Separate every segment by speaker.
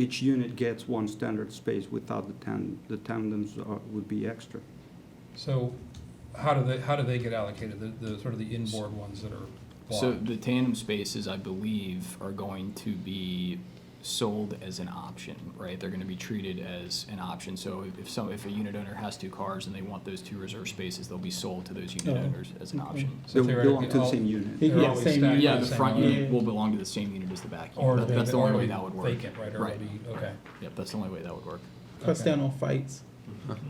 Speaker 1: each unit gets one standard space without the tan, the tandems are, would be extra.
Speaker 2: So how do they, how do they get allocated, the, the sort of the inboard ones that are
Speaker 3: So
Speaker 2: blocked?
Speaker 3: the tandem spaces, I believe, are going to be sold as an option, right? They're gonna be treated as an option, so if- if some, if a unit owner has two cars and they want those two reserved spaces, they'll be sold to those unit
Speaker 4: Oh,
Speaker 3: owners as an
Speaker 4: okay.
Speaker 3: option.
Speaker 2: So
Speaker 1: They would
Speaker 2: theoretically,
Speaker 1: belong to the
Speaker 2: all-
Speaker 1: same unit.
Speaker 4: Yeah,
Speaker 2: They're always
Speaker 4: same
Speaker 2: stacked.
Speaker 4: unit.
Speaker 3: Yeah,
Speaker 2: on
Speaker 3: the
Speaker 2: same
Speaker 3: front
Speaker 2: line.
Speaker 3: unit will belong to the same unit as the back
Speaker 2: Or
Speaker 3: unit, That-
Speaker 2: they-
Speaker 3: that's the
Speaker 2: or
Speaker 3: only
Speaker 2: it'll
Speaker 3: way
Speaker 2: be
Speaker 3: that would work.
Speaker 2: Vacant, right, or it'll
Speaker 3: Right.
Speaker 2: be, okay.
Speaker 3: Yep, that's the only way that would work,
Speaker 4: Cuts
Speaker 2: Okay.
Speaker 4: down on fights.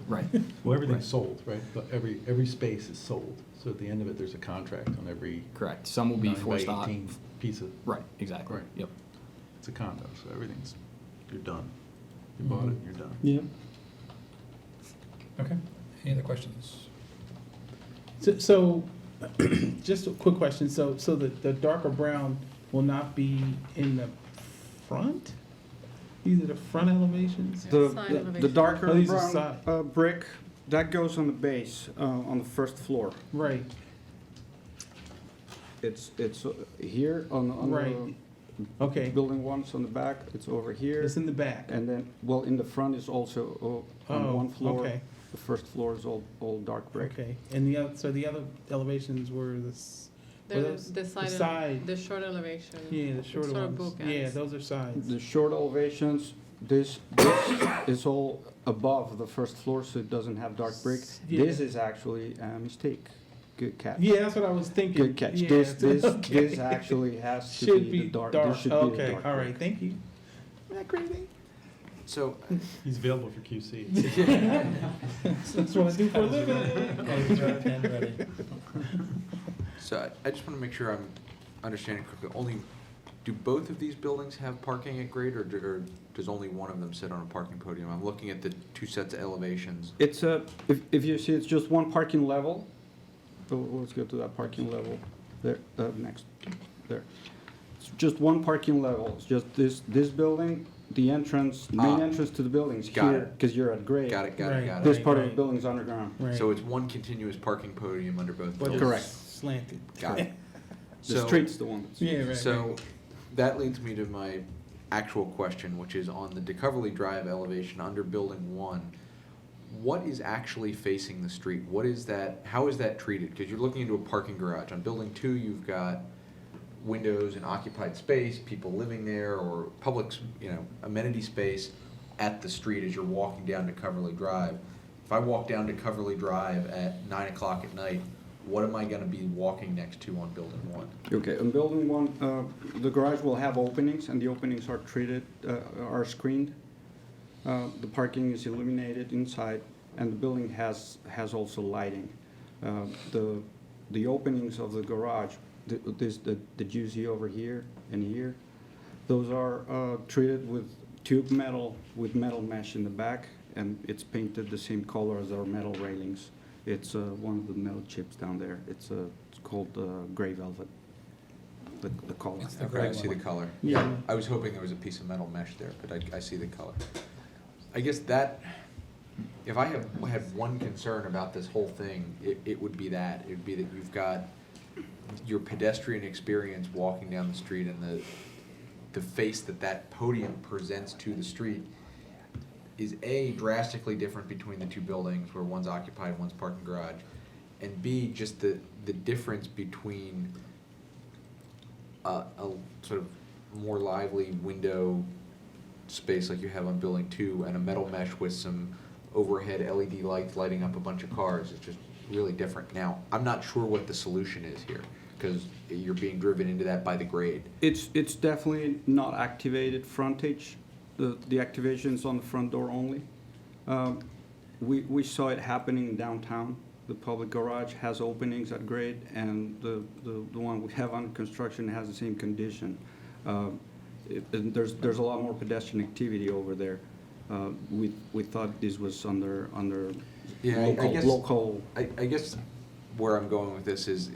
Speaker 3: right.
Speaker 5: Well,
Speaker 1: Right.
Speaker 5: everything's sold, right? But every, every space is sold, so at the end of it, there's a contract on every
Speaker 3: Correct, some will be
Speaker 5: nine by
Speaker 3: forced out,
Speaker 5: eighteen piece of,
Speaker 3: right, exactly,
Speaker 5: Right.
Speaker 3: yep.
Speaker 5: it's a condo, so everything's, you're done. You bought it, you're done.
Speaker 4: Yeah.
Speaker 2: Okay, any other questions?
Speaker 4: So, so just a quick question. So, so the, the darker brown will not be in the front? These are the front elevations?
Speaker 1: The,
Speaker 6: Side
Speaker 1: the- the
Speaker 6: elevation.
Speaker 1: darker
Speaker 4: Oh, these are
Speaker 1: brown,
Speaker 4: side.
Speaker 1: uh, brick, that goes on the base, uh, on the first floor.
Speaker 4: Right,
Speaker 1: It's, it's uh, here on, on
Speaker 4: right.
Speaker 1: the
Speaker 4: Okay,
Speaker 1: building one's on the back, it's over here.
Speaker 4: it's in the back.
Speaker 1: And then, well, in the front is also uh, on
Speaker 4: Oh,
Speaker 1: one floor.
Speaker 4: okay.
Speaker 1: The first floor is all, all dark brick.
Speaker 4: Okay, and the other, so the other elevations were the, s- were
Speaker 6: The,
Speaker 4: those?
Speaker 6: the side, ele-
Speaker 4: side,
Speaker 6: the short elevation.
Speaker 4: yeah, the shorter
Speaker 6: sort of
Speaker 4: ones.
Speaker 6: bookends.
Speaker 4: Yeah, those are sides.
Speaker 1: The short elevations, this, this is all above the first floor, so it doesn't have dark brick. This
Speaker 4: Yeah.
Speaker 1: is actually a mistake. Good catch.
Speaker 4: Yeah, that's what I was thinking.
Speaker 1: Good catch.
Speaker 4: Yeah,
Speaker 1: This, this,
Speaker 4: it's- okay.
Speaker 1: this actually has to
Speaker 4: Should
Speaker 1: be the
Speaker 4: be
Speaker 1: dark.
Speaker 4: dark,
Speaker 1: this should be the
Speaker 4: okay,
Speaker 1: dark
Speaker 4: all
Speaker 1: brick.
Speaker 4: right, thank you. Isn't that crazy?
Speaker 3: So,
Speaker 5: He's available for QC.
Speaker 4: That's what I do for a living.
Speaker 7: So I- I just want to make sure I'm understanding correctly. Only, do both of these buildings have parking at grade, or do- or does only one of them sit on a parking podium? I'm looking at the two sets of elevations.
Speaker 1: It's a, if, if you see, it's just one parking level. So Let's go to that parking level there, uh, next, there. It's just one parking level. It's just this, this building, the entrance, main
Speaker 7: Ah.
Speaker 1: entrance to the building is
Speaker 7: Got
Speaker 1: here,
Speaker 7: it.
Speaker 1: because you're at grade.
Speaker 7: Got it, got
Speaker 4: Right.
Speaker 7: it, got
Speaker 1: This
Speaker 7: it.
Speaker 1: part of the
Speaker 4: Right.
Speaker 1: building's underground.
Speaker 4: Right.
Speaker 7: So it's one continuous parking podium under both
Speaker 4: But
Speaker 7: buildings?
Speaker 1: Correct.
Speaker 4: it's Slanted.
Speaker 7: Got it.
Speaker 1: The
Speaker 7: So-
Speaker 1: street's the one. that's-
Speaker 4: Yeah, right.
Speaker 7: So
Speaker 4: right.
Speaker 7: that leads me to my actual question, which is on the DeCoverly Drive elevation under building one, what is actually facing the street? What is that, how is that treated? Because you're looking into a parking garage. On building two, you've got windows and occupied space, people living there or public, s- you know, amenity space at the street as you're walking down DeCoverly Drive. If I walk down DeCoverly Drive at nine o'clock at night, what am I gonna be walking next to on building one?
Speaker 1: Okay, in building one, uh, the garage will have openings, and the openings are treated, uh, are screened. Uh, The parking is illuminated inside, and the building has, has also lighting. Uh, The, the openings of the garage, th- this, the that you see over here and here, those are uh, treated with tube metal, with metal mesh in the back, and it's painted the same color as our metal railings. It's uh, one of the metal chips down there. It's uh, it's called uh, gray velvet, the the color.
Speaker 2: It's the
Speaker 7: Okay, I
Speaker 2: gray
Speaker 7: see the
Speaker 2: one.
Speaker 7: color.
Speaker 4: Yeah.
Speaker 7: I was hoping there was a piece of metal mesh there, but I, I see the color. I guess that, if I have, had one concern about this whole thing, it, it would be that. It'd be that you've got your pedestrian experience walking down the street and the, the face that that podium presents to the street is A, drastically different between the two buildings where one's occupied, one's parking garage, and B, just the, the difference between a, a sort of more lively window space like you have on building two and a metal mesh with some overhead LED lights lighting up a bunch of cars. It's just really different. Now, I'm not sure what the solution is here because you're being driven into that by the grade.
Speaker 1: It's, it's definitely not activated frontage. The, the activation's on the front door only. Um, We, we saw it happening downtown. The public garage has openings at grade, and the, the, the one we have under construction has the same condition. Um, it- And there's, there's a lot more pedestrian activity over there. Uh, We, we thought this was under, under
Speaker 7: Yeah, I- I
Speaker 1: local,
Speaker 7: guess-
Speaker 1: local.
Speaker 7: I, I guess where I'm going with this is,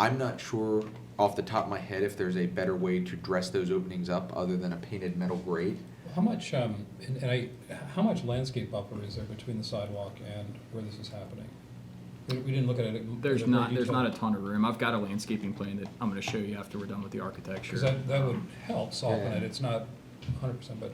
Speaker 7: I'm not sure off the top of my head if there's a better way to dress those openings up other than a painted metal grade.
Speaker 2: How much, um, and and I, how much landscape buffer is there between the sidewalk and where this is happening? We we didn't look at it. in
Speaker 3: There's
Speaker 2: great
Speaker 3: not, there's
Speaker 2: detail.
Speaker 3: not a ton of room, I've got a landscaping plan that I'm gonna show you after we're done with the architecture.
Speaker 2: Because that, that would help soften it, it's not hundred percent, but